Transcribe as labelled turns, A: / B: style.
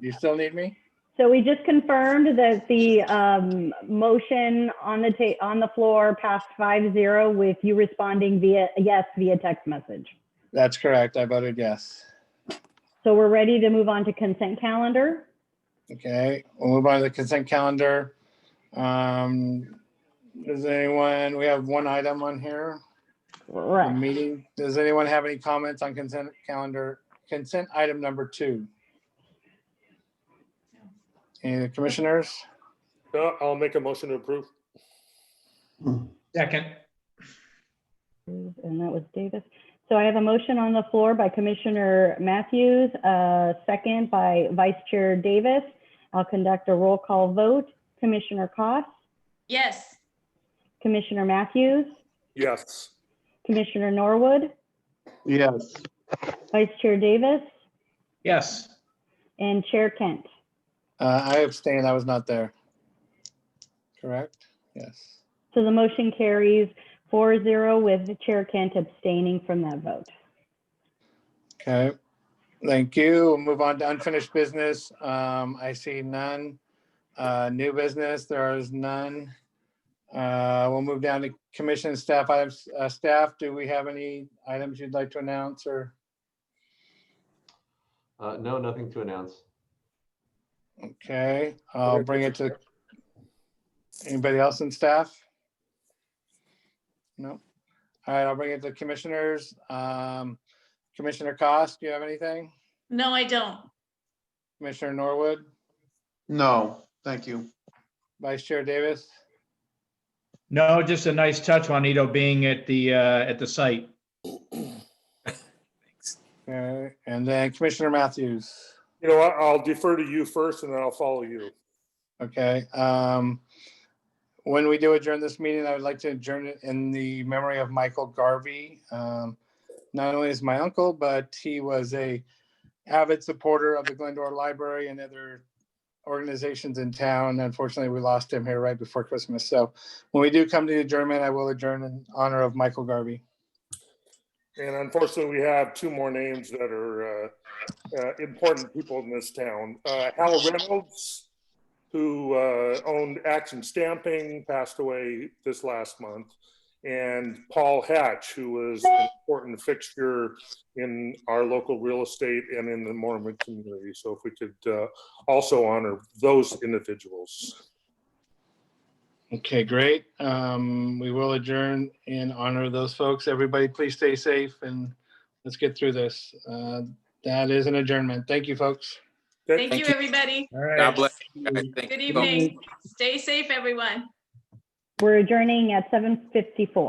A: Do you still need me?
B: So we just confirmed that the um, motion on the ta, on the floor passed five zero with you responding via, yes, via text message.
A: That's correct. I voted yes.
B: So we're ready to move on to consent calendar.
A: Okay, we'll move on to the consent calendar. Um, does anyone, we have one item on here, the
B: Correct.
A: meeting. Does anyone have any comments on consent calendar, consent item number two? Any commissioners?
C: No, I'll make a motion to approve.
D: Second,
B: And that was Davis. So I have a motion on the floor by Commissioner Matthews, uh, second by Vice Chair Davis. I'll conduct a roll call vote. Commissioner Koss,
E: Yes.
B: Commissioner Matthews,
C: Yes.
B: Commissioner Norwood,
F: Yes.
B: Vice Chair Davis,
D: yes.
B: and Chair Kent.
A: Uh, I abstain. I was not there. Correct? Yes.
B: So the motion carries 4-0 with Chair Kent abstaining from that vote.
A: Okay, thank you. We'll move on to unfinished business. Um, I see none. Uh, new business, there is none. Uh, we'll move down to commission and staff items. Uh, staff, do we have any items you'd like to announce or?
G: Uh, no, nothing to announce.
A: Okay, I'll bring it to. Anybody else in staff? No. All right, I'll bring it to commissioners. Um, Commissioner Cost, do you have anything?
E: No, I don't.
A: Commissioner Norwood,
F: No, thank you.
A: Vice Chair Davis?
D: No, just a nice touch, Juanito, being at the, uh, at the site.
A: Okay, and then Commissioner Matthews.
C: You know, what? I'll defer to you first and then I'll follow you.
A: Okay, um, when we do adjourn this meeting, I would like to adjourn it in the memory of Michael Garvey. Um, not only is my uncle, but he was a avid supporter of the Glendora Library and other organizations in town. Unfortunately, we lost him here right before Christmas. So when we do come to the adjournment, I will adjourn in honor of Michael Garvey.
C: And unfortunately, we have two more names that are uh, uh, important people in this town. Uh, Hal Reynolds, who uh, owned Action Stamping, passed away this last month. And Paul Hatch, who was an important fixture in our local real estate and in the Mormon community. So if we could uh, also honor those individuals.
A: Okay, great. Um, we will adjourn in honor of those folks. Everybody, please stay safe and let's get through this. Uh, that is an adjournment. Thank you, folks.
E: Thank you, everybody.
D: All right.
H: God bless. you guys. Thank
E: Good
H: you so much.
E: evening. Stay safe, everyone.
B: We're adjourning at 7:54.